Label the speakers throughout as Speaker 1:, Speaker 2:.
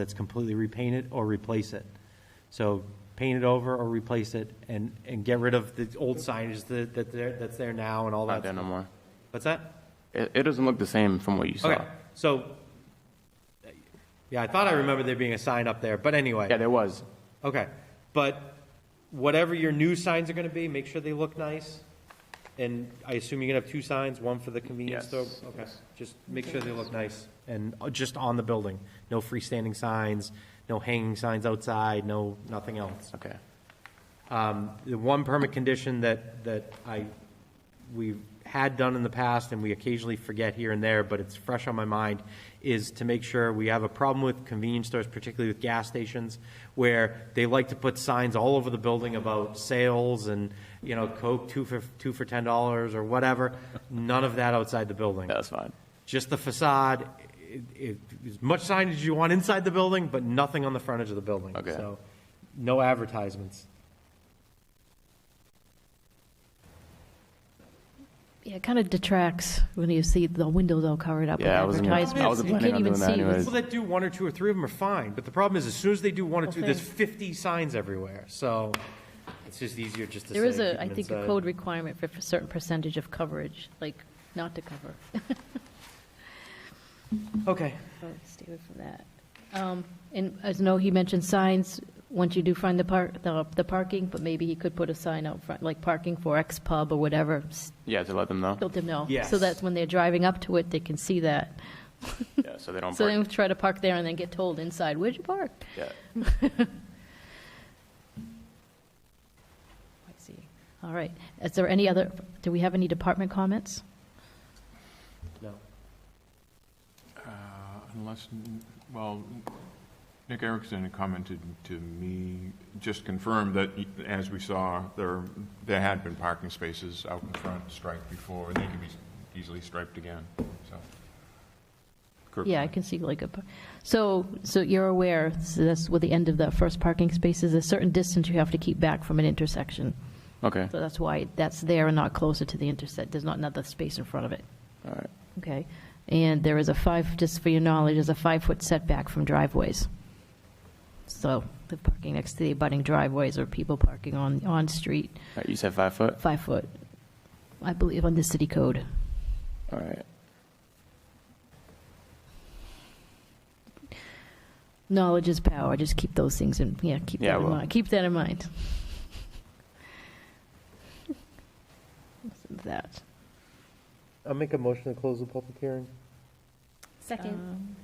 Speaker 1: that's completely repaint it or replace it. So paint it over or replace it and, and get rid of the old signage that, that there, that's there now and all
Speaker 2: Not
Speaker 1: that.
Speaker 2: there no more.
Speaker 1: What's that?
Speaker 2: It, it doesn't look the same from what you saw.
Speaker 1: Okay, so, yeah, I thought I remembered there being a sign up there, but anyway.
Speaker 2: Yeah, there was.
Speaker 1: Okay, but whatever your new signs are gonna be, make sure they look nice. And I assume you're gonna have two signs, one for the convenience store?
Speaker 2: Yes,
Speaker 1: Okay, just make sure they look nice and uh, just on the building. No freestanding signs, no hanging signs outside, no, nothing else.
Speaker 2: Okay.
Speaker 1: Um, The one permit condition that, that I, we had done in the past, and we occasionally forget here and there, but it's fresh on my mind, is to make sure we have a problem with convenience stores, particularly with gas stations, where they like to put signs all over the building about sales and, you know, Coke, two for, two for ten dollars or whatever. None of that outside the building
Speaker 2: Yeah, that's fine.
Speaker 1: just the facade, it, it, as much signage as you want inside the building, but nothing on the frontage of the building.
Speaker 2: Okay.
Speaker 1: So, no advertisements.
Speaker 3: Yeah, it kind of detracts when you see the windows all covered up with
Speaker 2: Yeah, I wasn't gonna- I
Speaker 3: advertisements.
Speaker 2: wasn't
Speaker 3: You
Speaker 2: planning
Speaker 3: can't
Speaker 2: on
Speaker 3: even
Speaker 2: doing that
Speaker 3: see. what's-
Speaker 1: People that do one or two or three of them are fine, but the problem is, as soon as they do one or two, there's
Speaker 3: Okay.
Speaker 1: fifty signs everywhere, so it's just easier just to say.
Speaker 3: There is
Speaker 1: keep
Speaker 3: a, I
Speaker 1: them
Speaker 3: think, a
Speaker 1: inside.
Speaker 3: code requirement for a certain percentage of coverage, like not to cover.
Speaker 1: Okay,
Speaker 3: So Oh, Stay away from that. Um, And as no, he mentioned signs, once you do find the park, the the parking, but maybe he could put a sign out front, like parking for X pub or whatever, s-
Speaker 2: Yeah, to let them know.
Speaker 3: let them know.
Speaker 1: Yes.
Speaker 3: So that when they're driving up to it, they can see that.
Speaker 2: Yeah, so they don't
Speaker 3: So they
Speaker 2: park.
Speaker 3: don't try to park there and then get told inside, where'd you park?
Speaker 2: Yeah.
Speaker 3: I see. All right. Is there any other, do we have any department comments?
Speaker 1: no,
Speaker 4: Uh, Unless, well, Nick Erickson had commented to me, just confirmed that, as we saw, there, there had been parking spaces out in front striped before, and they can be easily striped again, so. Kirk-
Speaker 3: Yeah, I can see like a, par- so, so you're aware, so that's with the end of the first parking space is a certain distance you have to keep back from an intersection.
Speaker 2: Okay.
Speaker 3: So that's why that's there and not closer to the intersect, there's not another space in front of it.
Speaker 2: All right.
Speaker 3: Okay? And there is a five, just for your knowledge, there's a five-foot setback from driveways. So the parking next to the abutting driveways or people parking on, on street,
Speaker 2: All right, You said five foot?
Speaker 3: five foot, I believe, on the city code.
Speaker 2: All right.
Speaker 3: Knowledge is power. Just keep those things in. Yeah, keep
Speaker 2: Yeah, I
Speaker 3: that in
Speaker 2: will.
Speaker 3: mind. Keep that in mind. that.
Speaker 1: I'll make a motion to close the public hearing.
Speaker 5: Second.
Speaker 3: um,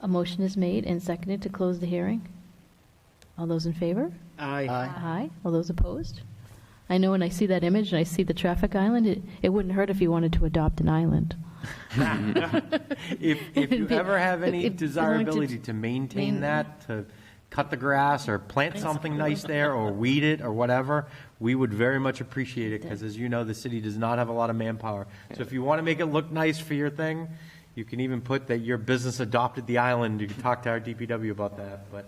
Speaker 3: A motion is made and seconded to close the hearing. All those in favor?
Speaker 1: Aye.
Speaker 3: Aye. All those opposed? I know when I see that image and I see the traffic island, it, it wouldn't hurt if you wanted to adopt an island.
Speaker 1: If, if you
Speaker 3: It'd be-
Speaker 1: ever have
Speaker 3: if-
Speaker 1: any
Speaker 3: if you wanted to
Speaker 1: desirability to maintain
Speaker 3: main-
Speaker 1: that, to cut the grass or plant something nice there or weed it or whatever, we would very much appreciate it because as you know, the city does not have a lot of manpower. So if you want to make it look nice for your thing, you can even put that your business adopted the island. You can talk to our DPW about that, but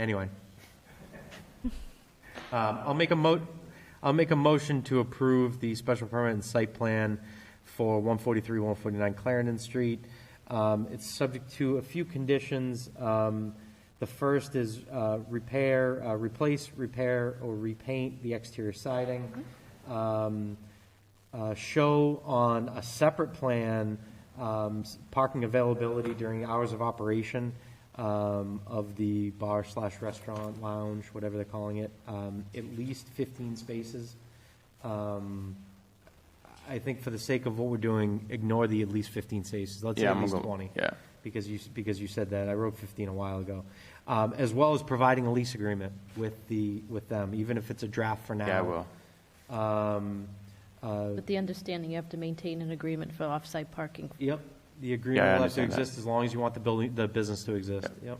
Speaker 1: anyway. Um, I'll make a mo, I'll make a motion to approve the special permit and site plan for one forty-three, one forty-nine Clarendon Street. Um, it's subject to a few conditions. Um, the first is, uh, repair, uh, replace, repair, or repaint the exterior siding. Um, uh, show on a separate plan um, s- parking availability during hours of operation um, of the bar slash restaurant lounge, whatever they're calling it, um, at least 15 spaces. Um, I think for the sake of what we're doing, ignore the at least 15 spaces. Let's say
Speaker 2: Yeah,
Speaker 1: at
Speaker 2: I'm
Speaker 1: least
Speaker 2: gonna go-
Speaker 1: 20
Speaker 2: Yeah.
Speaker 1: because you, because you said that, I wrote 15 a while ago, Um, as well as providing a lease agreement with the, with them, even if it's a draft for now.
Speaker 2: Yeah, I will.
Speaker 1: Um, uh,
Speaker 3: With the understanding you have to maintain an agreement for off-site parking.
Speaker 1: Yep, the
Speaker 2: Yeah, I
Speaker 1: agreement will have to
Speaker 2: understand that.
Speaker 1: exist as long as you want the building, the business to exist, yep.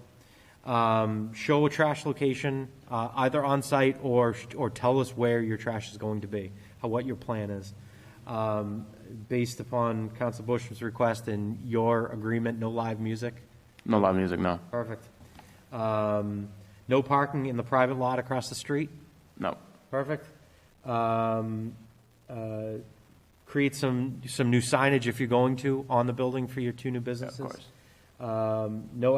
Speaker 1: Um, Show a trash location, uh, either on-site or, or tell us where your trash is going to be, how, what your plan is. Um, Based upon Council Bush's request and your agreement, no live music.
Speaker 2: No loud music, no.
Speaker 1: Perfect. Um, No parking in the private lot across the street?
Speaker 2: No.
Speaker 1: Perfect. Um, uh, Create some, some new signage if you're going to on the building for your two new
Speaker 2: Yeah, of
Speaker 1: businesses?
Speaker 2: course.
Speaker 1: Um, No